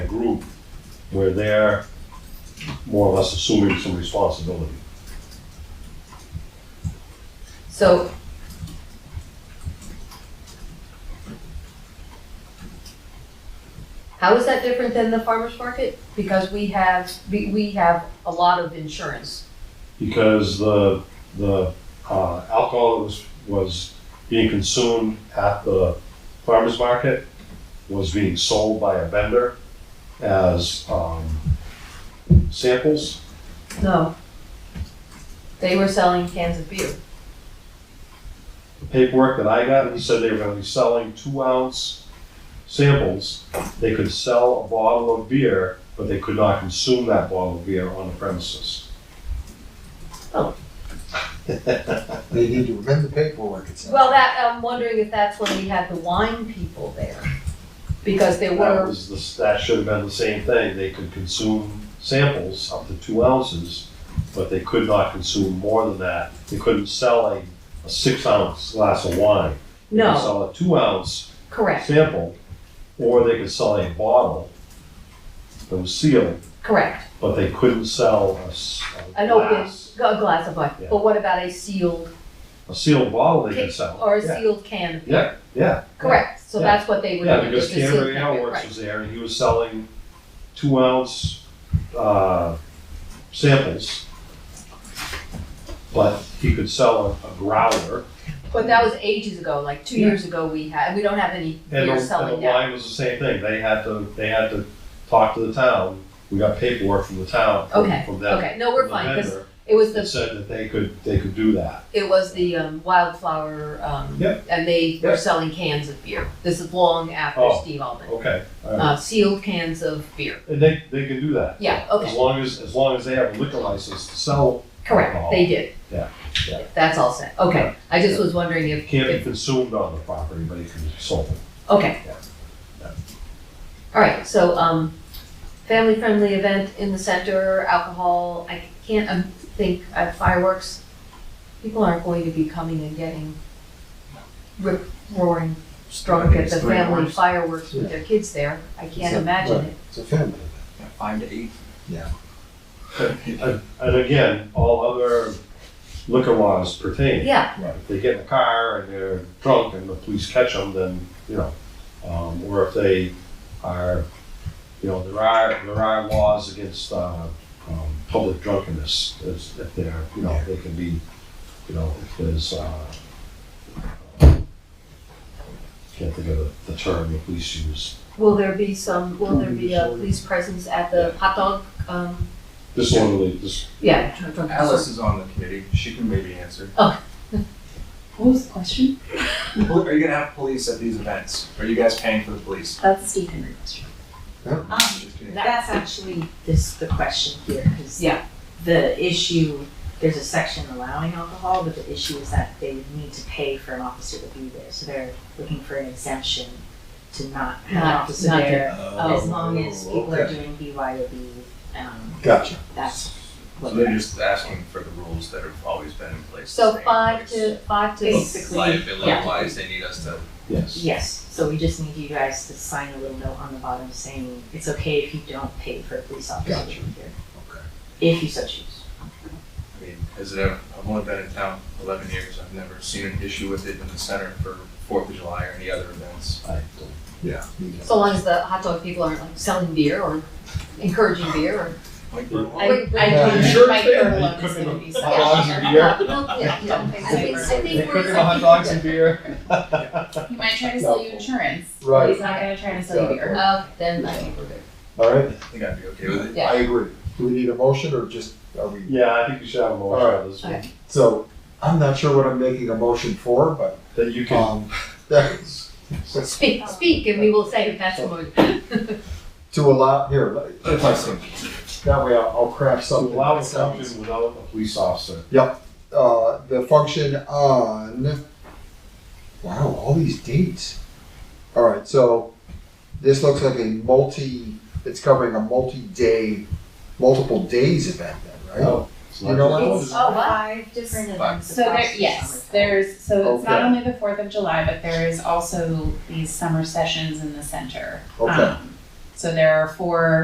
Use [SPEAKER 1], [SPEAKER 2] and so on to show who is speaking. [SPEAKER 1] we're there more or less assuming some responsibility.
[SPEAKER 2] So. How is that different than the farmer's market? Because we have, we, we have a lot of insurance.
[SPEAKER 1] because the the uh, alcohol that was was being consumed at the farmers market was being sold by a vendor as um, samples.
[SPEAKER 2] No. They were selling cans of beer.
[SPEAKER 1] The paperwork that I got, he said they were going to be selling two ounce samples. They could sell a bottle of beer, but they could not consume that bottle of beer on the premises.
[SPEAKER 3] They need to amend the paperwork, it sounds.
[SPEAKER 2] Well, that, I'm wondering if that's when we had the wine people there. Because there
[SPEAKER 1] That
[SPEAKER 2] were,
[SPEAKER 1] was the, that should have been the same thing, they could consume samples up to two ounces, but they could not consume more than that, they couldn't sell a, a six ounce glass of wine. They could
[SPEAKER 2] no,
[SPEAKER 1] Sell a two ounce
[SPEAKER 2] correct,
[SPEAKER 1] sample, or they could sell a bottle that was sealed,
[SPEAKER 2] correct.
[SPEAKER 1] but they couldn't sell a s- a
[SPEAKER 2] An open,
[SPEAKER 1] glass.
[SPEAKER 2] a glass of wine.
[SPEAKER 1] Yeah.
[SPEAKER 2] But what about a sealed,
[SPEAKER 1] A sealed bottle they could
[SPEAKER 2] ca-
[SPEAKER 1] sell.
[SPEAKER 2] or a
[SPEAKER 1] Yeah.
[SPEAKER 2] sealed can of beer?
[SPEAKER 1] Yeah, yeah,
[SPEAKER 2] Correct, so
[SPEAKER 1] Yeah.
[SPEAKER 2] that's what they were
[SPEAKER 1] yeah,
[SPEAKER 2] doing.
[SPEAKER 1] because
[SPEAKER 2] just a sealed
[SPEAKER 1] Canterbury
[SPEAKER 2] can of beer, right.
[SPEAKER 1] Outworks was there, and he was selling two ounce, uh, samples. But he could sell a a growler,
[SPEAKER 2] But that was ages ago, like two
[SPEAKER 1] Yeah.
[SPEAKER 2] years ago we had, we don't have any
[SPEAKER 1] and the,
[SPEAKER 2] beer
[SPEAKER 1] and the
[SPEAKER 2] selling now.
[SPEAKER 1] wine was the same thing, they had to, they had to talk to the town, we got paperwork from the town, from
[SPEAKER 2] Okay,
[SPEAKER 1] from them.
[SPEAKER 2] okay, no, we're
[SPEAKER 1] from the
[SPEAKER 2] fine, because
[SPEAKER 1] vendor,
[SPEAKER 2] it was
[SPEAKER 1] That
[SPEAKER 2] the,
[SPEAKER 1] said that they could, they could do that,
[SPEAKER 2] it was the um, wildflower, um,
[SPEAKER 1] Yep.
[SPEAKER 2] and they were
[SPEAKER 1] Yep.
[SPEAKER 2] selling cans of beer. This is long after
[SPEAKER 1] Oh.
[SPEAKER 2] Steve Alvin,
[SPEAKER 1] okay, alright,
[SPEAKER 2] uh, sealed cans of beer.
[SPEAKER 1] and they, they can do that.
[SPEAKER 2] Yeah,
[SPEAKER 1] As
[SPEAKER 2] okay,
[SPEAKER 1] long as, as long as they have a liquor license to sell,
[SPEAKER 2] correct, they did.
[SPEAKER 1] Oh. Yeah, yeah.
[SPEAKER 2] That's all set, okay, I just was wondering
[SPEAKER 1] it
[SPEAKER 2] if,
[SPEAKER 1] can't be
[SPEAKER 2] if,
[SPEAKER 1] consumed on the property, but it can be sold.
[SPEAKER 2] okay.
[SPEAKER 1] Yeah, yeah.
[SPEAKER 2] All right, so, um, family-friendly event in the center, alcohol, I can't, um, think at fireworks, people aren't going to be coming and getting rip roaring drunk at the
[SPEAKER 4] Three
[SPEAKER 2] family
[SPEAKER 4] hours.
[SPEAKER 2] fireworks with their kids there. I can't
[SPEAKER 3] Yeah,
[SPEAKER 2] imagine
[SPEAKER 3] right.
[SPEAKER 2] it.
[SPEAKER 3] It's a family
[SPEAKER 4] Yeah, Five to eight.
[SPEAKER 1] And again, all other liquor laws pertain.
[SPEAKER 2] Yeah,
[SPEAKER 1] If they get in a car and they're drunk and the police catch them, then, you know, um, or if they are, you know, there are, there are laws against, uh, um, public drunkenness, as if they're, you know, they can be, you know, if there's, uh, can't think of the, the term the police use.
[SPEAKER 2] will there be some, will there be a police presence at the hot dog, um,
[SPEAKER 1] Disorderly, dis-
[SPEAKER 2] yeah. drunk- drunk-
[SPEAKER 4] Alice is on the committee. She can maybe answer.
[SPEAKER 5] What was the question?
[SPEAKER 4] Pol- Are you gonna have police at these events? Are you guys paying for the police?
[SPEAKER 5] That's the Steve Henry question.
[SPEAKER 3] Yeah.
[SPEAKER 5] Um,
[SPEAKER 4] Just kidding.
[SPEAKER 5] that's actually this, the question here, because
[SPEAKER 2] Yeah.
[SPEAKER 5] the issue, there's a section allowing alcohol, but the issue is that they would need to pay for an officer to be there, so they're looking for an exemption to not have an
[SPEAKER 2] Not-
[SPEAKER 5] officer
[SPEAKER 2] not
[SPEAKER 5] there,
[SPEAKER 4] Oh,
[SPEAKER 5] as long as people are
[SPEAKER 4] okay.
[SPEAKER 5] doing BYOB, um,
[SPEAKER 3] Gotcha.
[SPEAKER 5] that's
[SPEAKER 4] So
[SPEAKER 5] what.
[SPEAKER 4] they're just asking for the rules that have always been in place. to
[SPEAKER 2] So
[SPEAKER 4] stay in
[SPEAKER 2] five
[SPEAKER 4] place.
[SPEAKER 2] to, five to,
[SPEAKER 5] Basically, yeah.
[SPEAKER 4] Liability wise, they need us to.
[SPEAKER 1] Yes.
[SPEAKER 5] Yes, so we just need you guys to sign a little note on the bottom saying it's okay if you don't pay for a police officer to be here,
[SPEAKER 4] Okay.
[SPEAKER 5] if you so choose.
[SPEAKER 4] I mean, has it ever, I've only been in town eleven years. I've never seen an issue with it in the center for Fourth of July or any other events.
[SPEAKER 1] I
[SPEAKER 3] Yeah.
[SPEAKER 2] so long as the hot dog people aren't like selling beer or encouraging beer or.
[SPEAKER 4] Like,
[SPEAKER 2] I,
[SPEAKER 4] we're-
[SPEAKER 2] I
[SPEAKER 3] Yeah.
[SPEAKER 2] think
[SPEAKER 1] Sure
[SPEAKER 5] my
[SPEAKER 1] thing.
[SPEAKER 5] third
[SPEAKER 1] They
[SPEAKER 5] one is
[SPEAKER 1] cooking
[SPEAKER 5] gonna
[SPEAKER 1] them
[SPEAKER 5] be
[SPEAKER 1] hot dogs
[SPEAKER 5] such-
[SPEAKER 1] and beer.
[SPEAKER 2] don't- yeah, yeah, I think, I
[SPEAKER 1] They
[SPEAKER 2] think
[SPEAKER 1] cook
[SPEAKER 2] we're.
[SPEAKER 1] them hot dogs and beer.
[SPEAKER 6] He might try to sell you insurance. but
[SPEAKER 3] Right,
[SPEAKER 6] He's not gonna try to sell you beer.
[SPEAKER 2] Uh, then I think we're good.
[SPEAKER 3] all right,
[SPEAKER 4] I think I'd be okay with it.
[SPEAKER 3] I agree. Do we need a motion or just, are we,
[SPEAKER 1] Yeah, I think you should have a motion on this one.
[SPEAKER 3] so, I'm not sure what I'm making a motion for, but,
[SPEAKER 1] That you can,
[SPEAKER 3] um, that's,
[SPEAKER 2] Speak, speak, and we will say if that's the
[SPEAKER 3] to allow, here, let- if I see. That way I'll, I'll craft
[SPEAKER 1] to
[SPEAKER 3] something.
[SPEAKER 1] allow a
[SPEAKER 3] that sounds-
[SPEAKER 1] function without a police officer.
[SPEAKER 3] Uh, the function on, wow, all these dates. All right, so this looks like a multi, it's covering a multi-day, multiple days event then, right?
[SPEAKER 1] No, it's
[SPEAKER 3] You know
[SPEAKER 1] not.
[SPEAKER 3] what?
[SPEAKER 2] Oh, wow.
[SPEAKER 5] Five different events.
[SPEAKER 6] So there,
[SPEAKER 5] across the
[SPEAKER 6] yes,
[SPEAKER 5] summer.
[SPEAKER 6] there's, so it's not
[SPEAKER 3] Okay.
[SPEAKER 6] only the Fourth of July, but there is also these summer sessions in the center.
[SPEAKER 3] Okay.
[SPEAKER 6] Um, So there are four